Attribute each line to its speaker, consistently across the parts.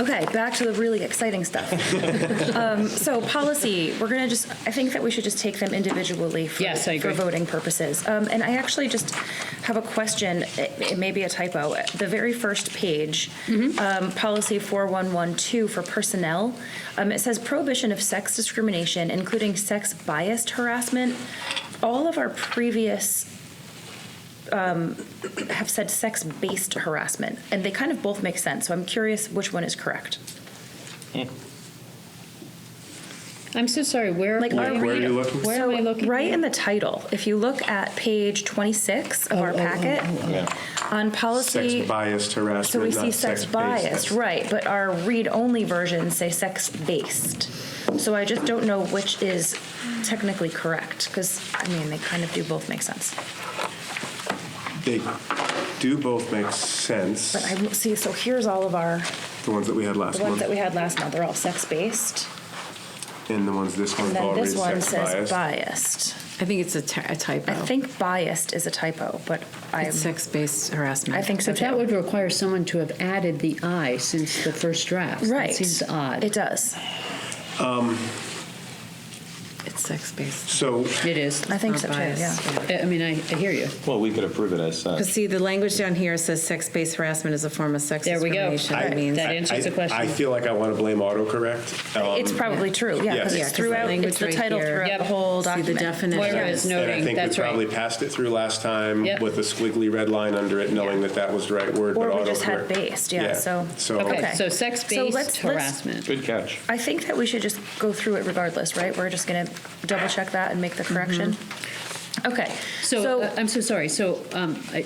Speaker 1: Okay, back to the really exciting stuff. Um, So policy, we're going to just, I think that we should just take them individually for
Speaker 2: Yes, I
Speaker 1: for
Speaker 2: agree.
Speaker 1: voting purposes. Um, And I actually just have a question, it it may be a typo. The very first page,
Speaker 2: Mm-hmm.
Speaker 1: um, policy 4112 for personnel, um, it says prohibition of sex discrimination, including sex-biased harassment. All of our previous have said sex-based harassment, and they kind of both make sense, so I'm curious which one is correct.
Speaker 2: I'm so sorry, where?
Speaker 1: Like, are
Speaker 3: Where are
Speaker 1: we-
Speaker 3: you looking?
Speaker 2: Where am I looking?
Speaker 1: Right in the title, if you look at page 26 of
Speaker 2: Oh,
Speaker 1: our
Speaker 2: oh, oh,
Speaker 1: packet,
Speaker 3: Yeah.
Speaker 1: on policy,
Speaker 3: Sex biased
Speaker 1: so
Speaker 3: harassment,
Speaker 1: we see
Speaker 3: not
Speaker 1: sex
Speaker 3: sex
Speaker 1: biased,
Speaker 3: based.
Speaker 1: right, but our read-only versions say sex-based. So I just don't know which is technically correct, because, I mean, they kind of do both make sense.
Speaker 3: They do both make sense,
Speaker 1: But I, see, so here's all of our,
Speaker 3: the ones that we had last
Speaker 1: the ones
Speaker 3: month,
Speaker 1: that we had last month, they're all sex-based,
Speaker 3: and the ones this
Speaker 1: and
Speaker 3: month
Speaker 1: then
Speaker 3: all read
Speaker 1: this one
Speaker 3: sex
Speaker 1: says
Speaker 3: biased.
Speaker 1: biased.
Speaker 3: Oh.
Speaker 4: I think it's a ty- a typo.
Speaker 1: I think biased is a typo, but I,
Speaker 4: It's sex-based harassment.
Speaker 1: I think so
Speaker 2: But that
Speaker 1: too.
Speaker 2: would require someone to have added the I since the first draft.
Speaker 1: Right.
Speaker 2: That seems odd.
Speaker 1: It does.
Speaker 4: It's sex-based.
Speaker 3: So
Speaker 2: It is.
Speaker 1: I think
Speaker 4: or
Speaker 1: so too,
Speaker 4: bias,
Speaker 1: yeah.
Speaker 2: I mean, I, I hear you.
Speaker 5: Well, we could approve it as
Speaker 4: Because
Speaker 5: such.
Speaker 4: see, the language down here says sex-based harassment is a form of sex
Speaker 2: There we go.
Speaker 4: discrimination. That
Speaker 2: I-
Speaker 4: means-
Speaker 2: that
Speaker 3: I,
Speaker 2: is- Answers the question.
Speaker 3: I feel like I want to blame autocorrect. Um,
Speaker 1: It's probably true, yeah, because
Speaker 3: Yeah,
Speaker 1: it's
Speaker 3: 'cause
Speaker 4: the
Speaker 1: throughout,
Speaker 4: language
Speaker 1: it's the
Speaker 4: right
Speaker 1: title
Speaker 4: here-
Speaker 1: throughout the
Speaker 2: Yep.
Speaker 1: whole
Speaker 4: See the
Speaker 1: document.
Speaker 4: definition.
Speaker 2: Moira is
Speaker 3: and I
Speaker 2: noting,
Speaker 3: think
Speaker 2: that's
Speaker 3: we
Speaker 2: right.
Speaker 3: probably passed it through last time
Speaker 2: Yep.
Speaker 3: with a squiggly red line under it, knowing that that was the right word.
Speaker 1: Or
Speaker 3: but
Speaker 1: we just had
Speaker 3: autocorrect-
Speaker 1: based, yeah, so-
Speaker 3: So
Speaker 1: Okay.
Speaker 2: Okay, so
Speaker 1: So let's-
Speaker 2: sex-based
Speaker 1: let's-
Speaker 2: harassment.
Speaker 5: Good catch.
Speaker 1: I think that we should just go through it regardless, right? We're just going to double check that and make the correction? Okay,
Speaker 2: Mm-hmm. So,
Speaker 1: so,
Speaker 2: uh, I'm so sorry, so um, I-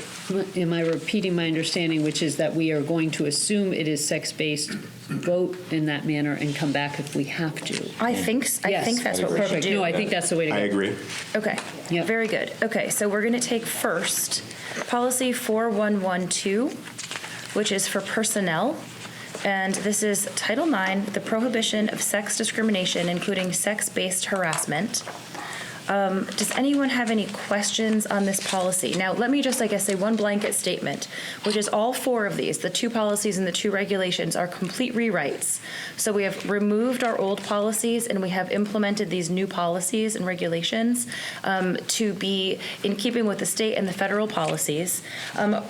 Speaker 2: am I repeating my understanding, which is that we are going to assume it is sex-based, vote in that manner, and come back if we have to?
Speaker 1: I think, s- I
Speaker 2: Yes.
Speaker 1: think that's what we should
Speaker 2: Perfect. No,
Speaker 1: do.
Speaker 2: I think that's the way to go.
Speaker 3: I agree.
Speaker 1: Okay,
Speaker 2: Yep.
Speaker 1: very good. Okay, so we're going to take first, policy 4112, which is for personnel. And this is Title IX, the prohibition of sex discrimination, including sex-based harassment. Um, Does anyone have any questions on this policy? Now, let me just, I guess, say one blanket statement, which is all four of these, the two policies and the two regulations, are complete rewrites. So we have removed our old policies and we have implemented these new policies and regulations um, to be in keeping with the state and the federal policies. Um,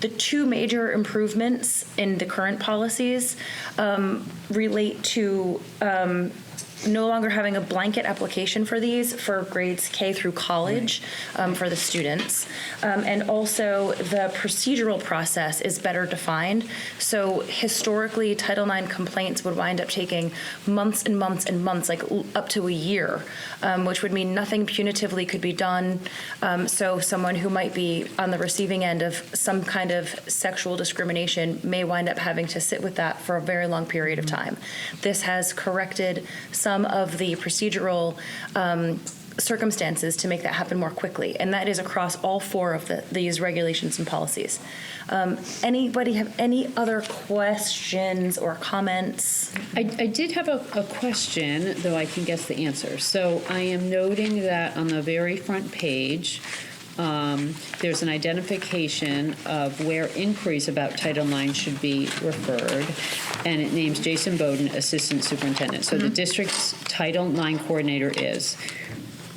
Speaker 1: the two major improvements in the current policies um, relate to um, no longer having a blanket application for these for grades K through college um, for the students. Um, and also, the procedural process is better defined. So, historically, Title IX complaints would wind up taking months and months and months, like l- up to a year, um, which would mean nothing punitively could be done. Um, so, someone who might be on the receiving end of some kind of sexual discrimination may wind up having to sit with that for a very long period of time. This has corrected some of the procedural um, circumstances to make that happen more quickly, and that is across all four of the, these regulations and policies. Um, anybody have any other questions or comments?
Speaker 2: I, I did have a, a question, though I can guess the answer. So I am noting that on the very front page, um, there's an identification of where inquiries about Title IX should be referred, and it names Jason Bowden Assistant Superintendent. So the district's Title IX coordinator is.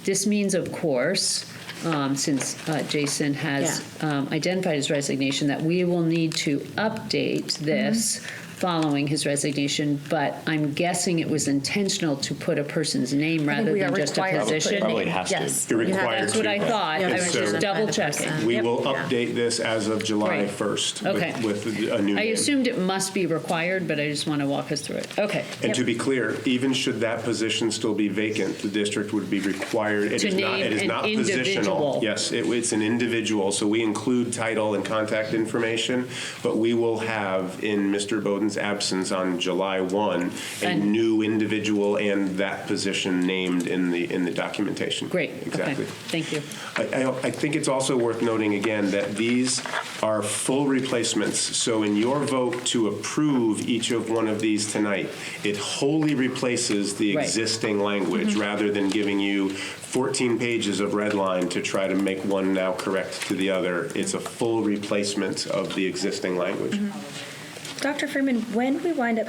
Speaker 2: This means, of course, um, since uh, Jason has um, identified his resignation, that we will need to update this
Speaker 1: Mm-hmm.
Speaker 2: following his resignation. But I'm guessing it was intentional to put a person's name
Speaker 1: I think
Speaker 2: rather
Speaker 1: we
Speaker 2: than
Speaker 1: are
Speaker 2: just a
Speaker 1: required to put
Speaker 2: position.
Speaker 1: a
Speaker 5: Probably
Speaker 1: name.
Speaker 5: has to.
Speaker 1: Yes.
Speaker 3: You're required
Speaker 2: That's what
Speaker 3: to.
Speaker 2: I thought. I
Speaker 3: And
Speaker 2: was
Speaker 3: so
Speaker 2: just double checking.
Speaker 3: We
Speaker 2: Yep.
Speaker 3: will
Speaker 4: Yeah.
Speaker 3: update this as of July
Speaker 2: Right.
Speaker 3: 1st
Speaker 2: Okay.
Speaker 3: with, with a new
Speaker 2: I
Speaker 3: name.
Speaker 2: assumed it must be required, but I just want to walk us through it. Okay.
Speaker 3: And to be clear, even should that position still be vacant, the district would be required, it
Speaker 2: To
Speaker 3: is not, it
Speaker 2: name
Speaker 3: is
Speaker 2: an
Speaker 3: not
Speaker 2: individual.
Speaker 3: positional. Yes, it- it's an individual, so we include title and contact information, but we will have, in Mr. Bowden's absence on July 1, a
Speaker 2: And-
Speaker 3: new individual and that position named in the, in the documentation.
Speaker 2: Great.
Speaker 3: Exactly.
Speaker 2: Okay. Thank you.
Speaker 3: I, I- I think it's also worth noting again that these are full replacements. So in your vote to approve each of one of these tonight, it wholly replaces the
Speaker 2: Right.
Speaker 3: existing language rather than giving you 14 pages of red line to try to make one now correct to the other. It's a full replacement of the existing language.
Speaker 6: Dr. Freeman, when we wind up